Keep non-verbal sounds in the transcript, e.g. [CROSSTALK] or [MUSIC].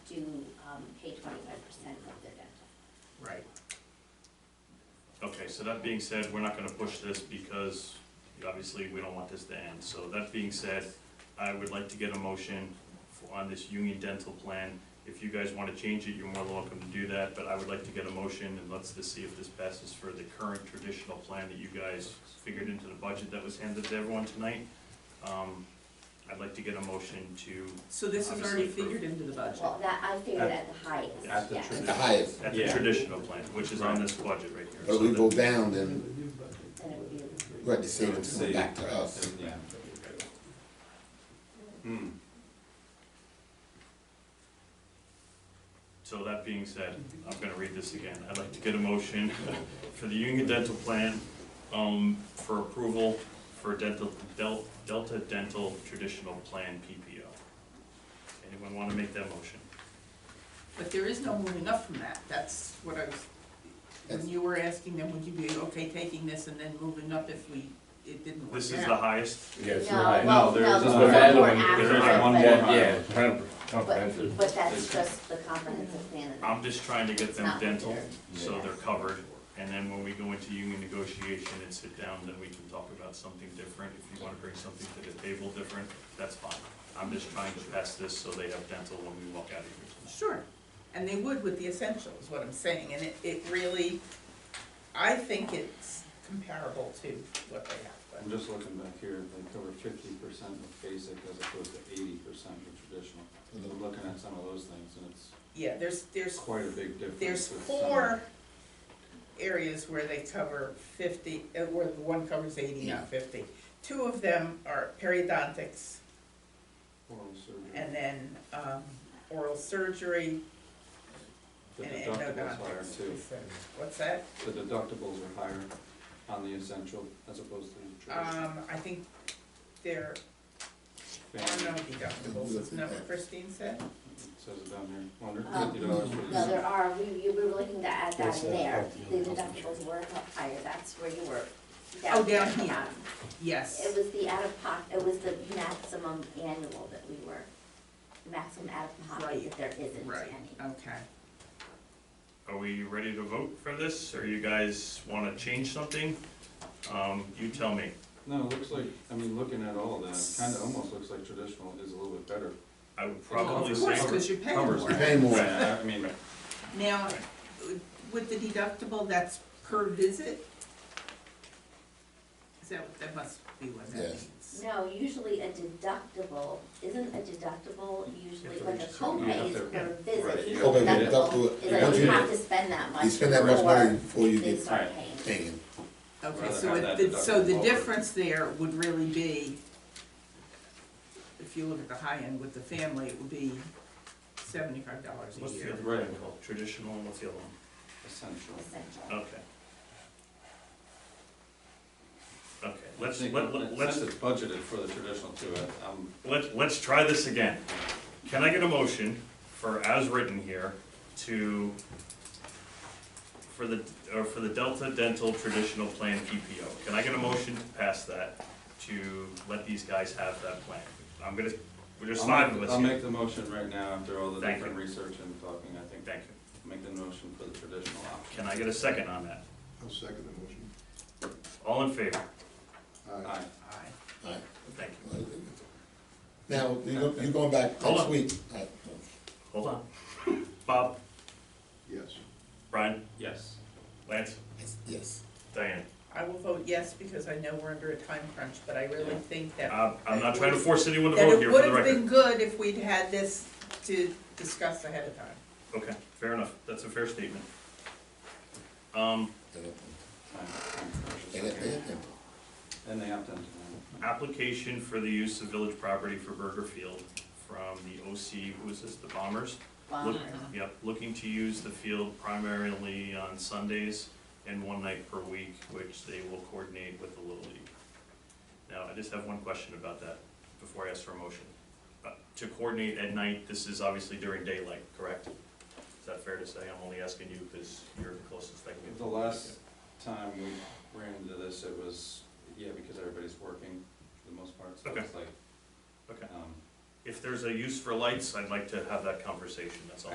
um, pay twenty-five percent of their dental. Right. Okay, so that being said, we're not gonna push this because obviously we don't want this to end. So that being said, I would like to get a motion for- on this Union Dental plan. If you guys wanna change it, you're more than welcome to do that, but I would like to get a motion and let's just see if this passes for the current traditional plan that you guys figured into the budget that was handed to everyone tonight. Um, I'd like to get a motion to, So this is already Obviously for- figured into the budget. Well, that, I figured at the highest, At yeah. At the highest, at the Yeah. traditional plan, which is on this budget right here. but we go down, then Then it would be, we have to save it to come back to us. Yeah. Hmm. So that being said, I'm gonna read this again. I'd like to get a motion [LAUGHS] for the Union Dental Plan, um, for approval for dental, Del- Delta Dental Traditional Plan PPO. Anyone wanna make that motion? But there is no moving up from that, that's what I was, when That's- you were asking them, would you be okay taking this and then moving up if we, it didn't work out? This is the highest, Yes, no, you're right. well, no, No, there's there's one one more add-on. after There's it, one but- more. Yeah, yeah, compre- But, comprehensive. Um, but that's just the comprehensive plan. that- I'm just trying to get them Not dental, prepared. so they're covered. And then when we go into union negotiation and sit down, then we can talk about something different. If you wanna bring something to the table different, that's fine. I'm just trying to pass this so they have dental when we walk out of here. Sure, and they would with the essentials, what I'm saying, and it, it really, I think it's comparable to what they have, I'm just looking back here, they cover fifty percent of basic as opposed to eighty percent of traditional. I'm looking at some of those things and it's but, yeah, there's, there's quite a big difference. There's with some. four areas where they cover fifty, uh, where the one covers eighty, not fifty. Two of them are periodontics Oral surgery. and then, um, oral surgery The and deductibles higher endodontics. too. What's that? The deductibles are higher on the essential as opposed to the traditional. Um, I think there are no Family, deductibles, isn't that what Christine said? It says it down here, one hundred Um, fifty dollars for No, the there are, we, you were looking to add that Yes, in uh, there, health, the you know, health deductibles were up higher, that's where you were. Oh, down at the here. bottom. It Yes, was the out of pocket, it was the maximum annual that we were, maximum out of pocket, Right. if there isn't right, any. okay. Are we ready to vote for this, or you guys wanna change something? Um, you tell me. No, it looks like, I mean, looking at all that, it kinda almost looks like traditional is a little bit better. I would Well, probably Of say, course, because you're paying Covers more. it. Pay more. Yeah, I mean, Now, with the deductible, that's per visit? Is that, what- that must be what that Yes. means. No, usually a deductible, isn't a deductiple usually If like a there's something copay you is have to- per right, visit. you It's a gotta pay the deductible, deductible. it's like Once you you have get- to spend that much. You spend that much money before you They get start Right. paying. paying. Okay, Rather so have that it, so the deductible lower. difference there would really be, if you look at the high end with the family, it would be seventy-five dollars a what's the year. other one called, traditional, and what's the other essential. Essential. one? Uh, Okay. Okay, I let's, think let, let- Since let's, it's budgeted for the traditional too, I- I'm let's, let's try this again. Can I get a motion for, as written here, to, for the, or for the Delta Dental Traditional Plan PPO? Can I get a motion to pass that, to let these guys have that plan? I'm gonna, we're just I'll five make- of us I'll here. make the motion right now after all the Thank different research and talking, I think. Thank you. Make the motion for the traditional option. Can I get a second on that? I'll second the All in favor? Aye. Aye. motion. Thank you. Now, you go- you're going back Hold next on. week. All Hold on. [LAUGHS] Bob, Yes. Brian, Yes. Lance, right. Yes. Diane. I will vote yes because I know we're under a time crunch, but I really Yeah. think that, I'm, I'm not trying to force anyone to that vote it here for would the have been record. good if we'd had this to discuss ahead of time. Okay, fair enough. That's a fair statement. Um, And it- Time- time precious. and it- and it- And they opt into that. application for the use of village property for Burger Field from the OC, who is this, the Bombers? Look- Yep, looking to use the field primarily on Sundays and one night per week, which they will coordinate with the Little League. Now, I just have one question about that before I ask for a motion. Uh, To coordinate at night, this is obviously during daylight, correct? Is that fair to say? I'm only asking you because you're the closest I can get. The last time we ran into this, it was, yeah, because everybody's working for the most part, so it's like, Okay. um, If there's a use for lights, I'd like to have that conversation, that's all.